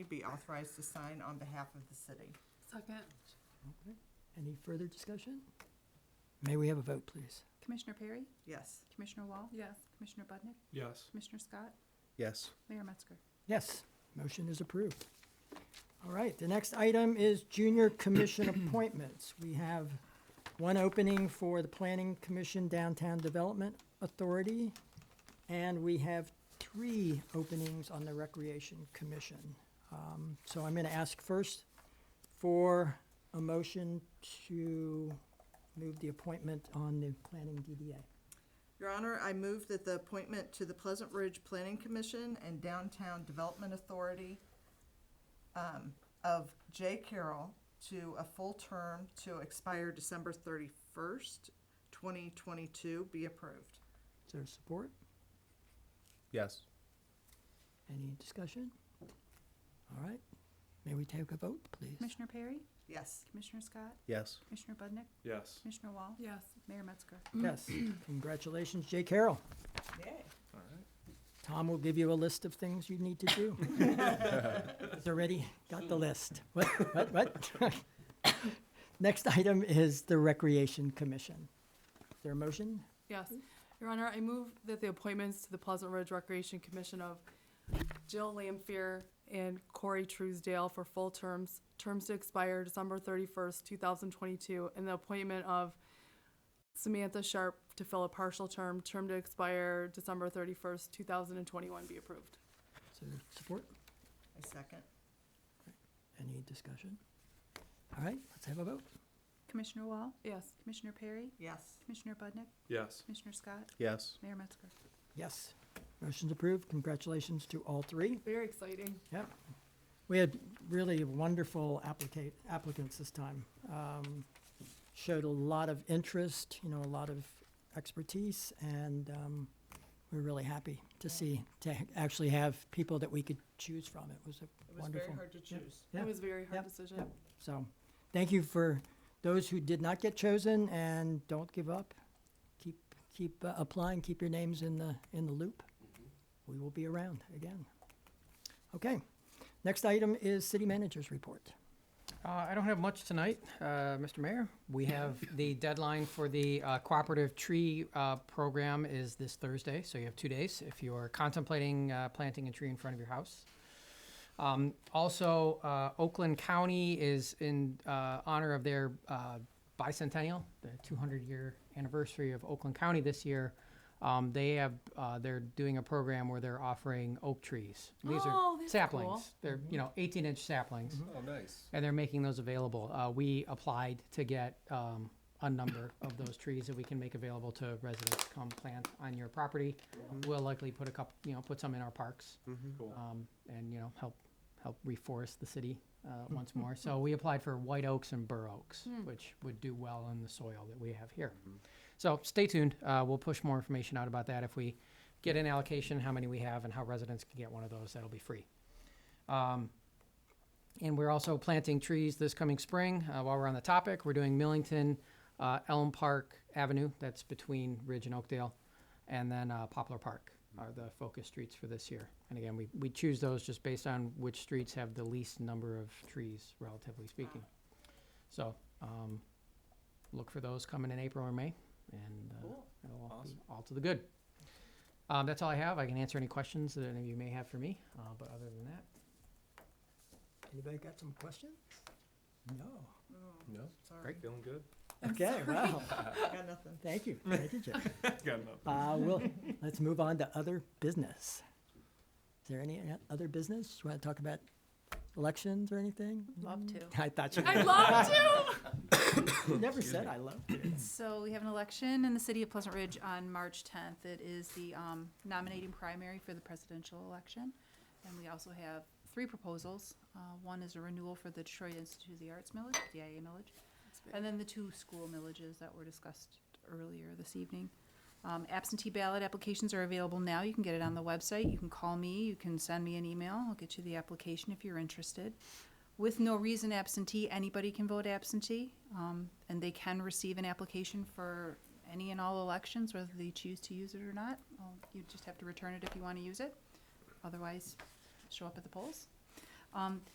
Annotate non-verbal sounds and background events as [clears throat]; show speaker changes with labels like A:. A: be authorized to sign on behalf of the city.
B: Second.
C: Any further discussion? May we have a vote, please?
D: Commissioner Perry?
A: Yes.
D: Commissioner Wall?
B: Yes.
D: Commissioner Budnick?
E: Yes.
D: Commissioner Scott?
F: Yes.
D: Mayor Metzger?
C: Yes, motion is approved. All right, the next item is junior [clears throat] commission appointments. We have one opening for the Planning Commission Downtown Development Authority, and we have three openings on the Recreation Commission. Um, So I'm going to ask first for a motion to move the appointment on the Planning DDA.
A: Your Honor, I move that the appointment to the Pleasant Ridge Planning Commission and Downtown Development Authority um, of Jay Carroll to a full term to expire December thirty-first, twenty twenty-two be approved.
C: Is there support?
F: Yes.
C: Any discussion? All right, may we take a vote, please?
D: Commissioner Perry?
A: Yes.
D: Commissioner Scott?
F: Yes.
D: Commissioner Budnick?
E: Yes.
D: Commissioner Wall?
B: Yes.
D: Mayor Metzger?
C: Yes, congratulations, Jay Carroll.
A: Yay.
E: All right.
C: Tom will give you a list of things you need to do. He's already got the list. What, what, what? [coughs] Next item is the Recreation Commission. Is there a motion?
B: Yes. Your Honor, I move that the appointments to the Pleasant Ridge Recreation Commission of Jill Lampier and Corey Truesdale for full terms, terms to expire December thirty-first, two thousand twenty-two, and the appointment of Samantha Sharp to fill a partial term, term to expire December thirty-first, two thousand and twenty-one be approved.
C: Is there support?
A: I second.
C: Any discussion? All right, let's have a vote.
D: Commissioner Wall?
B: Yes.
D: Commissioner Perry?
A: Yes.
D: Commissioner Budnick?
E: Yes.
D: Commissioner Scott?
F: Yes.
D: Mayor Metzger?
C: Yes, motion's approved. Congratulations to all three.
B: Very exciting.
C: Yep. We had really wonderful applicate, applicants this time. Um, Showed a lot of interest, you know, a lot of expertise, and um, we were really happy to see, to ha- actually have people that we could choose from. It was
A: It
C: a
A: was very
C: wonderful.
A: hard to choose.
C: Yeah.
B: It was a very hard
C: Yep.
B: decision.
C: Yep. So, thank you for those who did not get chosen, and don't give up. Keep, keep uh, applying, keep your names in the, in the loop. We will be around again. Okay, next item is city managers report.
G: Uh, I don't have much tonight, uh, Mr. Mayor. We have the deadline for the uh, cooperative tree uh, program is this Thursday, so you have two days if you are contemplating uh, planting a tree in front of your house. Um, also, uh, Oakland County is in uh, honor of their uh, bicentennial, the 200 year anniversary of Oakland County this year. Um, they have uh, they're doing a program where they're offering oak trees. These
B: Oh,
G: are
B: that's
G: saplings.
B: cool.
G: They're you know 18 inch saplings
F: Oh, nice.
G: and they're making those available. Uh, we applied to get um, a number of those trees that we can make available to residents to come plant on your property. We'll likely put a couple, you know, put some in our parks,
E: Cool.
G: um, and you know, help help reforest the city uh, once more. So we applied for white oaks and bur oaks, which would do well in the soil that we have here. So stay tuned. Uh, we'll push more information out about that if we get an allocation, how many we have, and how residents can get one of those. That'll be free. Um, and we're also planting trees this coming spring. Uh, while we're on the topic, we're doing Millington, uh, Elm Park Avenue, that's between Ridge and Oakdale, and then uh, Poplar Park are the focus streets for this year. And again, we, we choose those just based on which streets have the least number of trees, relatively speaking. So um, look for those coming in April or May, and uh,
A: Cool.
G: it'll all be
E: Awesome.
G: all to the good. Um, that's all I have. I can answer any questions that any of you may have for me, uh, but other than that,
C: Anybody got some questions? No.
A: Oh,
F: No.
A: Sorry,
E: Feeling good?
C: Okay, wow.
A: got nothing.
C: Thank you. Thank
B: [laughs]
C: you, Jeff.
E: [laughs] Got enough.
C: Uh, well, let's move on to other business. Is there any uh, other business? Want to talk about elections or anything?
D: Love [clears throat] to.
C: I thought you,
B: I love to.
C: [coughs] you never said I love you.
D: So we have an election in the city of Pleasant Ridge on March 10th. It is the um, nominating primary for the presidential election. And we also have three proposals. Uh, One is a renewal for the Detroit Institute of the Arts millage, DIA millage. And then the two school millages that were discussed earlier this evening. Um, Absentee ballot applications are available now. You can get it on the website. You can call me, you can send me an email. I'll get you the application if you're interested with no reason absentee, anybody can vote absentee, um, and they can receive an application for any and all elections, whether they choose to use it or not. Well, You just have to return it if you want to use it. Otherwise, show up at the polls. Um,